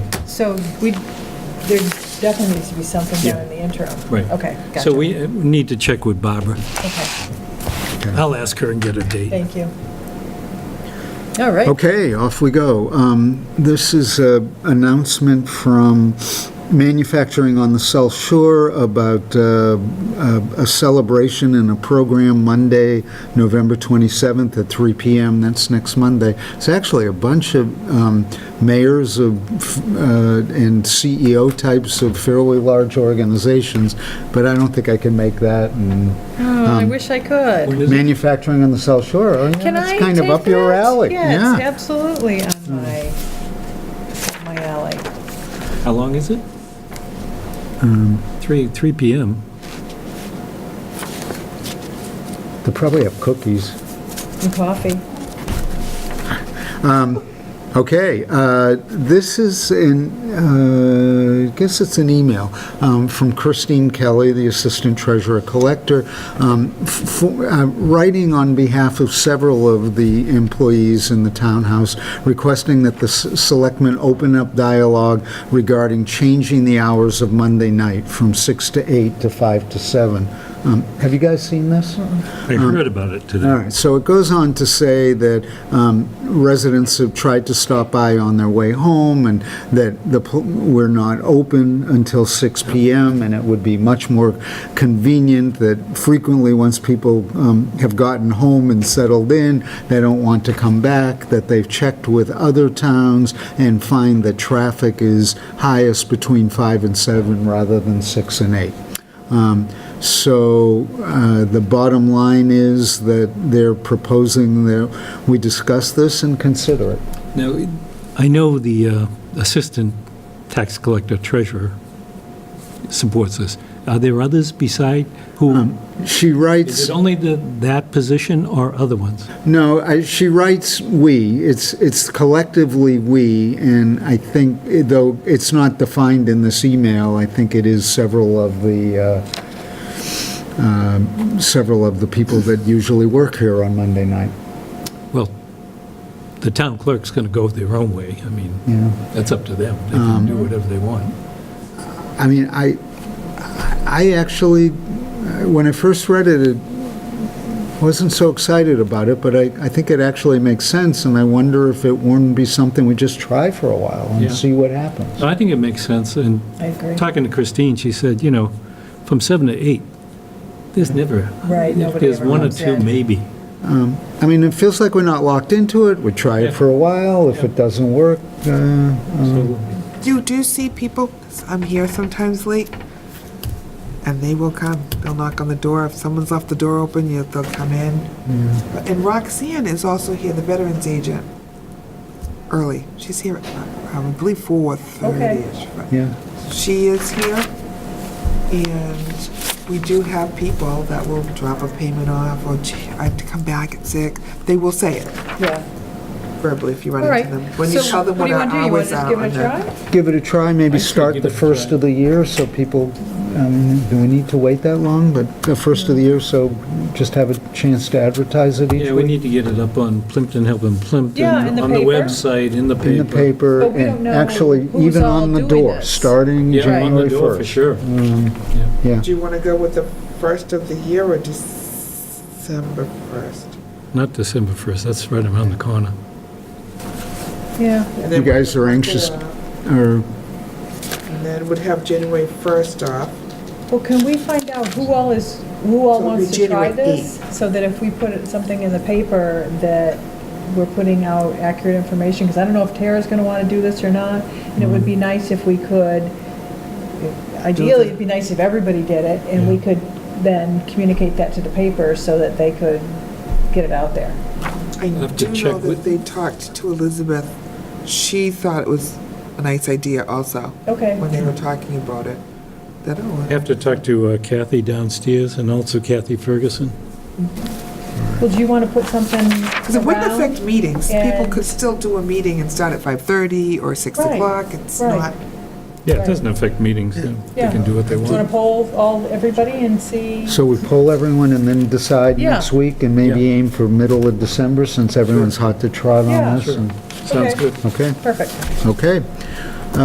So we, there definitely needs to be something done in the interim. Right. Okay, gotcha. So we uh, need to check with Barbara. Okay, I'll ask her and get a date. Thank you. All right. Okay, off we go. Um, This is an announcement from manufacturing on the South Shore about uh, a a celebration and a program Monday, November 27th at 3 PM. That's next Monday. It's actually a bunch of um, mayors of uh, and CEO types of fairly large organizations, but I don't think I can make that. And Oh, I wish I could. When is it? Manufacturing on the South Shore, oh, Um, yeah, Can I that's take kind of up your that? alley. Yes, Yeah. Mm. absolutely, on my, up my alley. How long is it? 3, 3 PM. They probably have cookies. And coffee. Okay, uh, this is in, uh, I guess it's an email um, from Christine Kelly, the Assistant Treasurer Collector, um, f- for- uh, writing on behalf of several of the employees in the townhouse, requesting that the s- selectmen open up dialogue regarding changing the hours of Monday night from 6 to 8 to 5 to 7. Um, Have you guys seen this? I heard about it All today. right, so it goes on to say that um, residents have tried to stop by on their way home, and that the, pl- we're not open until 6 PM, and it would be much more convenient that frequently, once people um, have gotten home and settled in, they don't want to come back, that they've checked with other towns and find that traffic is highest between 5 and 7 rather than 6 and 8. Um, So uh, the bottom line is that they're proposing that we discuss this and consider it. Now, I know the uh, Assistant Tax Collector Treasurer supports this. Are there others beside who, She is writes, it only the- that position or other ones? no, I- she writes "we." It's it's collectively "we," and I think, eh, though it's not defined in this email, I think it is several of the, uh, um, several of the people that usually work here on Monday night. Well, the town clerk's going to go their own way. I mean, Yeah. that's up to them. They can do whatever they want. I mean, I, I actually, uh, when I first read it, it wasn't so excited about it, but I, I think it actually makes sense, and I wonder if it wouldn't be something we just try for a while Yeah. and see what happens. No, I think it makes sense, and I agree. talking to Christine, she said, you know, from seven to eight, there's never, Right, if nobody there's ever one or comes two, in. maybe. I mean, it feels like we're not locked into it, we try Yeah. it for a while, if it doesn't work, uh, So You do see people, 'cause I'm here sometimes late, and they will come. They'll knock on the door. If someone's left the door open, you, they'll come in. But- And Roxanne is also here, the veterans agent, early. She's here, at, I believe, 4:30-ish. but yeah. She is here, and we do have people that will drop a payment off, or "Gee, I have to come back at six. They will say it Yeah. verbally if you run All right. into them. When you So tell them do what you our wanna do? You wanna hours just are. give it on a the- try? Give it a try, maybe I say start give the it a first try. of the year, so people, I mean, do we need to wait that long? But the first of the year, so just have a chance to advertise it each Yeah, we week? need to get it up on Plimpton Helping Plimpton, Yeah, in the on the paper. website, in the paper. in the paper, But we don't and know actually, who's even all on the doing door, this. Yeah, on starting the January Mm. door, for 1st. sure. Yeah, Do you want to go with the first of the year or December first? Not December 1st, that's right around the corner. Yeah, You guys are anxious. or, And then would have January first off. well, can we find out who all is, who all So it'll be wants to try January this? So that if we put it- something in the paper, that we're putting out accurate information, because I don't know if Tara's going to want to do this or not, and it would be nice if we could, ideally, it'd be nice if everybody did it, and we could then communicate that to the paper so that they could get it out there. I have to do check know with- that they talked to Elizabeth. She thought it was a nice idea also, Okay, when they were talking about it. That, I oh, have to talk to uh, Kathy downstairs and also Kathy Ferguson. well, do you want to put something because it wouldn't around? affect meetings. People and- could still do a meeting and start at five-thirty or six Right, o'clock. It's right. not, Yeah, it doesn't affect meetings, they they Yeah. can do what they Do you want want. to poll all, everybody and see? so we poll everyone and then decide Yeah. next week, and maybe Yeah. aim for middle of December, since everyone's hot to trot Yeah. on this. Sure. and- Sounds Okay. good. Okay, Perfect. okay.